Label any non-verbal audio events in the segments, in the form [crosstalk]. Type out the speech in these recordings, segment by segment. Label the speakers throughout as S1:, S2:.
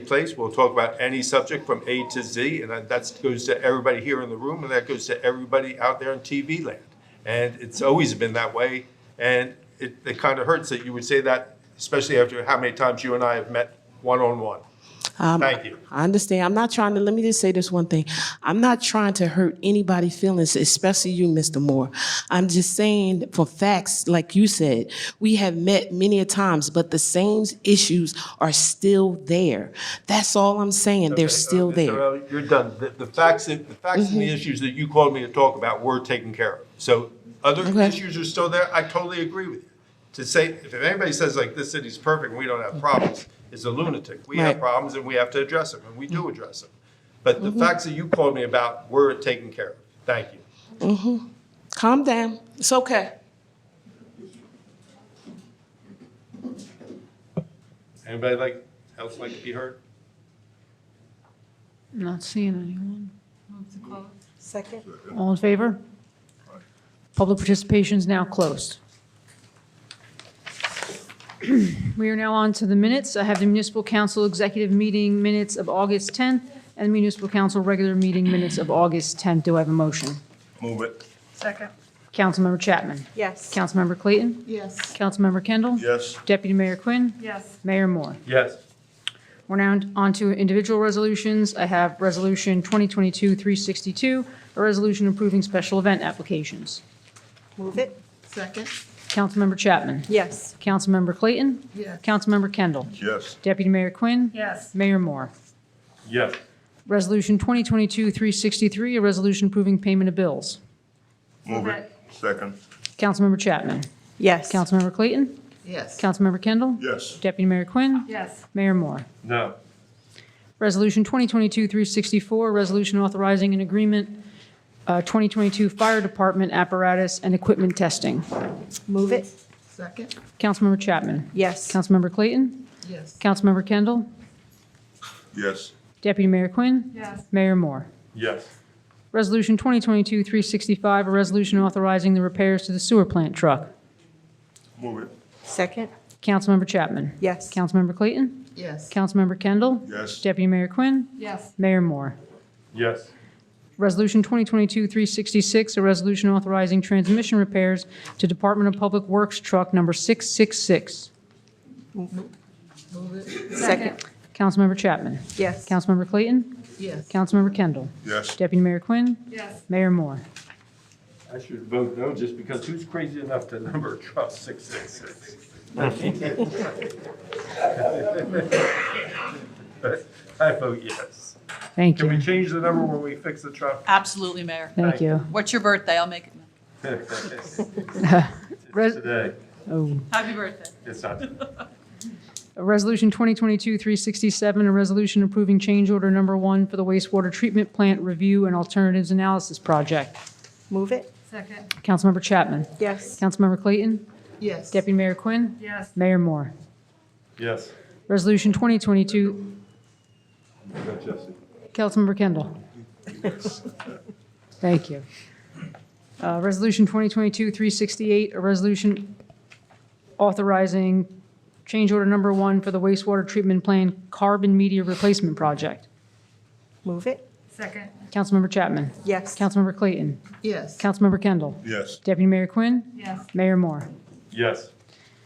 S1: place. We'll talk about any subject from A to Z, and that that's- goes to everybody here in the room, and that goes to everybody out there in TV land. And it's always been that way, and it, it kind of hurts that you would say that, especially after how many times you and I have met one-on-one. Thank you.
S2: I understand. I'm not trying to, let me just say this one thing. I'm not trying to hurt anybody's feelings, especially you, Mr. Moore. I'm just saying for facts, like you said, we have met many a times, but the same issues are still there. That's all I'm saying. They're still
S1: Mr.
S2: there. Mm-hmm.
S1: Early, uh, You're done. The, the facts, that- the facts and the issues that you called me to talk about were taken care of. So other
S2: Okay.
S1: issues are still there. I totally agree with you. To say, if anybody says like this city's perfect and we don't have problems, is a lunatic. We have
S2: Mm-hmm. Right. Mm-hmm.
S1: problems and we have to address them, and we do address them. But the facts that you called me about were taken care of. Thank you.
S2: Calm down. It's okay.
S1: Anybody like, else like to be heard?
S3: Not seeing anyone.
S4: Second.
S3: All in favor? Public participation is now closed. [clears throat] We are now on to the minutes. I have the municipal council executive meeting minutes of August 10th and municipal council regular meeting minutes of August 10th. Do I have a motion?
S5: Move it.
S4: Second.
S3: Councilmember Chapman.
S4: Yes.
S3: Councilmember Clayton.
S4: Yes.
S3: Councilmember Kendall.
S5: Yes.
S3: Deputy Mayor Quinn.
S4: Yes.
S3: Mayor Moore.
S1: Yes.
S3: We're now on to individual resolutions. I have Resolution 2022-362, a resolution approving special event applications.
S4: Move it. Second.
S3: Councilmember Chapman.
S4: Yes.
S3: Councilmember Clayton.
S4: Yes.
S3: Councilmember Kendall.
S5: Yes.
S3: Deputy Mayor Quinn.
S4: Yes.
S3: Mayor Moore.
S1: Yes.
S3: Resolution 2022-363, a resolution approving payment of bills.
S5: Move it. Second.
S3: Councilmember Chapman.
S4: Yes.
S3: Councilmember Clayton.
S4: Yes.
S3: Councilmember Kendall.
S5: Yes.
S3: Deputy Mayor Quinn.
S4: Yes.
S3: Mayor Moore.
S1: No.
S3: Resolution 2022-364, a resolution authorizing an agreement, uh, 2022 Fire Department apparatus and equipment testing.
S4: Move it. Second.
S3: Councilmember Chapman.
S4: Yes.
S3: Councilmember Clayton.
S4: Yes.
S3: Councilmember Kendall.
S5: Yes.
S3: Deputy Mayor Quinn.
S4: Yes.
S3: Mayor Moore.
S1: Yes.
S3: Resolution 2022-365, a resolution authorizing the repairs to the sewer plant truck.
S5: Move it.
S4: Second.
S3: Councilmember Chapman.
S4: Yes.
S3: Councilmember Clayton.
S4: Yes.
S3: Councilmember Kendall.
S5: Yes.
S3: Deputy Mayor Quinn.
S4: Yes.
S3: Mayor Moore.
S1: Yes.
S3: Resolution 2022-366, a resolution authorizing transmission repairs to Department of Public Works Truck Number 666.
S4: Second.
S3: Councilmember Chapman.
S4: Yes.
S3: Councilmember Clayton.
S4: Yes.
S3: Councilmember Kendall.
S5: Yes.
S3: Deputy Mayor Quinn.
S4: Yes.
S3: Mayor Moore.
S1: I should vote no, just because who's crazy enough to number [laughs] a truck six six six? [laughs] I vote yes.
S3: Thank
S1: Can we
S3: you.
S1: change the number when we fix the truck?
S6: Absolutely, Mayor.
S3: Thank you.
S6: What's your birthday? I'll make it.
S3: Res-
S1: Today,
S3: oh.
S6: Happy birthday.
S1: it's not,
S3: Resolution 2022-367, a resolution approving change order number one for the wastewater treatment plant review and alternatives analysis project.
S4: Move it.
S3: Councilmember Chapman.
S4: Yes.
S3: Councilmember Clayton.
S4: Yes.
S3: Deputy Mayor Quinn.
S4: Yes.
S3: Mayor Moore.
S1: yes.
S3: Resolution 2022,
S1: Vote Jesse.
S3: Councilmember Kendall. Thank you. Uh, Resolution 2022-368, a resolution authorizing change order number one for the wastewater treatment plant carbon media replacement project.
S4: Move it.
S3: Councilmember Chapman.
S4: Yes.
S3: Councilmember Clayton.
S4: Yes.
S3: Councilmember Kendall.
S5: Yes.
S3: Deputy Mayor Quinn.
S4: Yes.
S3: Mayor Moore.
S1: Yes,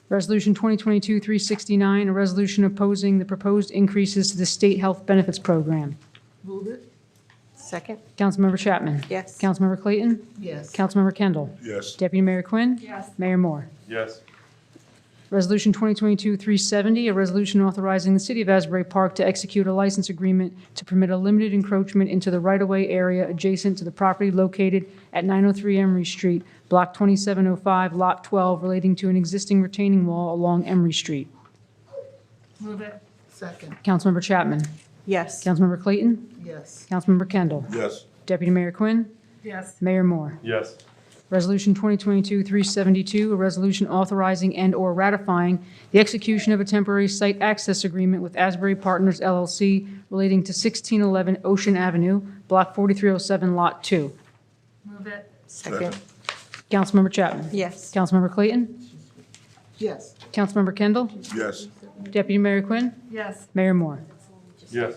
S3: Resolution 2022-369, a resolution opposing the proposed increases to the state health benefits program.
S4: Move it. Second.
S3: Councilmember Chapman.
S4: Yes.
S3: Councilmember Clayton.
S4: Yes.
S3: Councilmember Kendall.
S5: Yes.
S3: Deputy Mayor Quinn.
S4: Yes.
S3: Mayor Moore.
S1: yes,
S3: Resolution 2022-370, a resolution authorizing the City of Asbury Park to execute a license agreement to permit a limited encroachment into the right-of-way area adjacent to the property located at 903 Emery Street, Block 2705, Lot 12, relating to an existing retaining wall along Emery Street.
S4: Second.
S3: Councilmember Chapman.
S4: Yes.
S3: Councilmember Clayton.
S4: Yes.
S3: Councilmember Kendall.
S5: Yes.
S3: Deputy Mayor Quinn.
S4: Yes.
S3: Mayor Moore.
S1: yes,
S3: Resolution 2022-372, a resolution authorizing and/or ratifying the execution of a temporary site access agreement with Asbury Partners LLC relating to 1611 Ocean Avenue, Block 4307, Lot 2.
S4: Second.
S3: Councilmember Chapman.
S4: Yes.
S3: Councilmember Clayton.
S4: Yes.
S3: Councilmember Kendall.
S5: Yes.
S3: Deputy Mayor Quinn.
S4: Yes.
S3: Mayor Moore.
S5: Yes.